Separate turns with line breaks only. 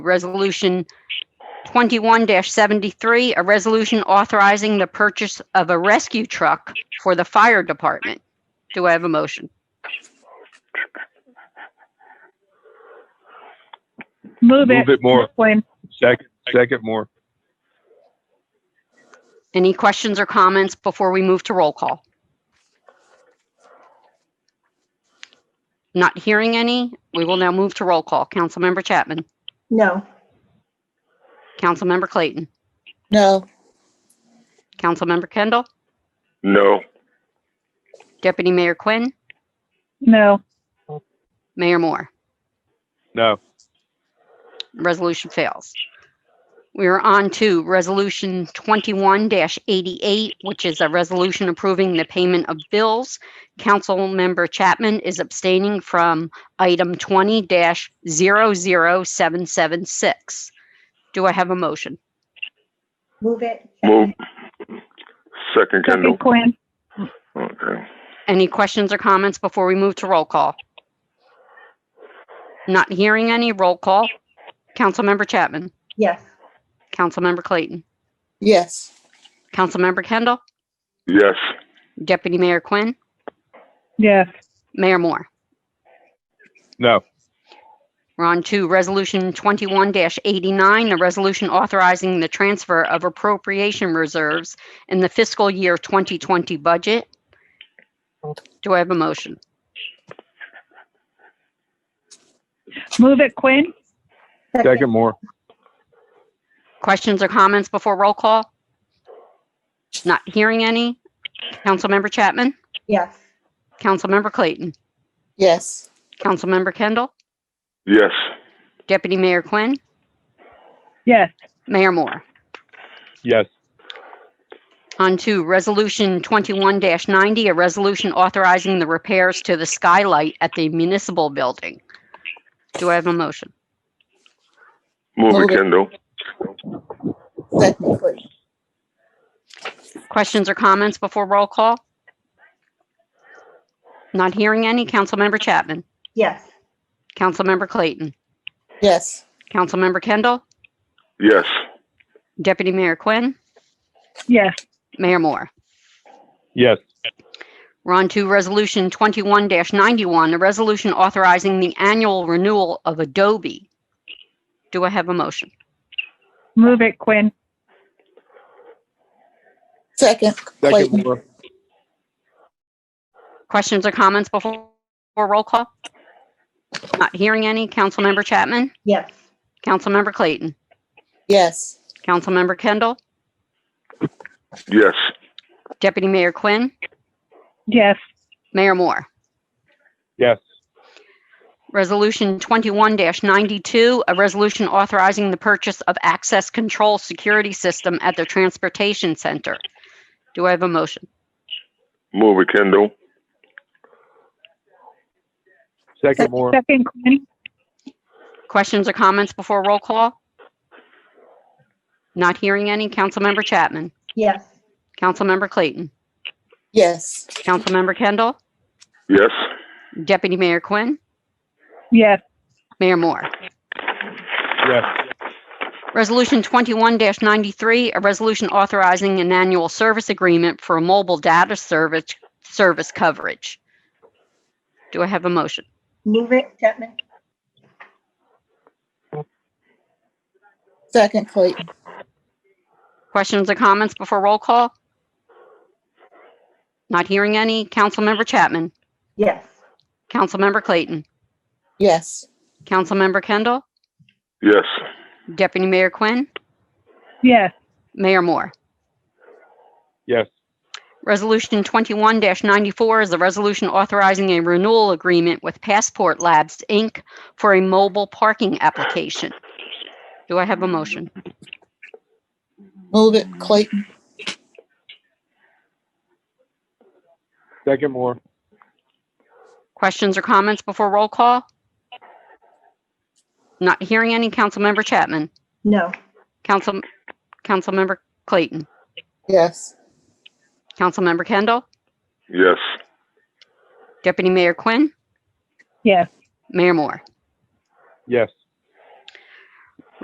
Resolution 21-73, a resolution authorizing the purchase of a rescue truck for the fire department. Do I have a motion?
Move it,
Move it more.
Flynn.
Second, second more.
Any questions or comments before we move to roll call? Not hearing any. We will now move to roll call. Councilmember Chapman.
No.
Councilmember Clayton.
No.
Councilmember Kendall.
No.
Deputy Mayor Quinn.
No,
Mayor Moore.
No.
Resolution fails. We are on to Resolution 21-88, which is a resolution approving the payment of bills. Councilmember Chapman is abstaining from item 20-00776. Do I have a motion?
Move it.
Move. Second Kindle.
second Quinn.
Okay.
Any questions or comments before we move to roll call? Not hearing any. Roll call. Councilmember Chapman.
Yes.
Councilmember Clayton.
Yes.
Councilmember Kendall.
Yes.
Deputy Mayor Quinn.
Yes,
Mayor Moore.
No.
We're on to Resolution 21-89, a resolution authorizing the transfer of appropriation reserves in the fiscal year 2020 budget. Do I have a motion?
move it, Quinn.
Second more.
Questions or comments before roll call? Not hearing any. Councilmember Chapman?
Yes.
Councilmember Clayton?
Yes.
Councilmember Kendall?
Yes.
Deputy Mayor Quinn?
Yes,
Mayor Moore?
Yes.
On to Resolution 21-90, a resolution authorizing the repairs to the skylight at the municipal building. Do I have a motion?
Move
Move it.
it Kindle.
Second Clayton.
Questions or comments before roll call? Not hearing any. Councilmember Chapman.
Yes.
Councilmember Clayton.
Yes.
Councilmember Kendall.
Yes.
Deputy Mayor Quinn.
yes,
Mayor Moore.
Yes.
We're on to Resolution 21-91, a resolution authorizing the annual renewal of Adobe. Do I have a motion?
move it, Quinn.
Second
Second
Clayton.
more.
Questions or comments before before roll call? Not hearing any. Councilmember Chapman?
Yes.
Councilmember Clayton?
Yes.
Councilmember Kendall?
Yes.
Deputy Mayor Quinn?
Yes,
Mayor Moore?
Yes.
Resolution 21-92, a resolution authorizing the purchase of access control security system at the Transportation Center. Do I have a motion?
Move it Kindle.
Second more.
second Quinn.
Questions or comments before roll call? Not hearing any. Councilmember Chapman?
Yes.
Councilmember Clayton?
Yes.
Councilmember Kendall?
Yes.
Deputy Mayor Quinn?
Yes,
Mayor Moore?
Yes.
Resolution 21-93, a resolution authorizing an annual service agreement for mobile data service, service coverage. Do I have a motion?
Move it. Chapman. Second Clayton.
Questions or comments before roll call? Not hearing any. Councilmember Chapman.
Yes.
Councilmember Clayton.
Yes.
Councilmember Kendall.
Yes.
Deputy Mayor Quinn.
yes,
Mayor Moore.
Yes.
Resolution 21-94 is a resolution authorizing a renewal agreement with Passport Labs, Inc. for a mobile parking application. Do I have a motion?
Move it. Clayton.
Second more.
Questions or comments before roll call? Not hearing any. Councilmember Chapman.
No.
Council, Councilmember Clayton.
Yes.
Councilmember Kendall.
Yes.
Deputy Mayor Quinn.
yes,
Mayor Moore.
Yes.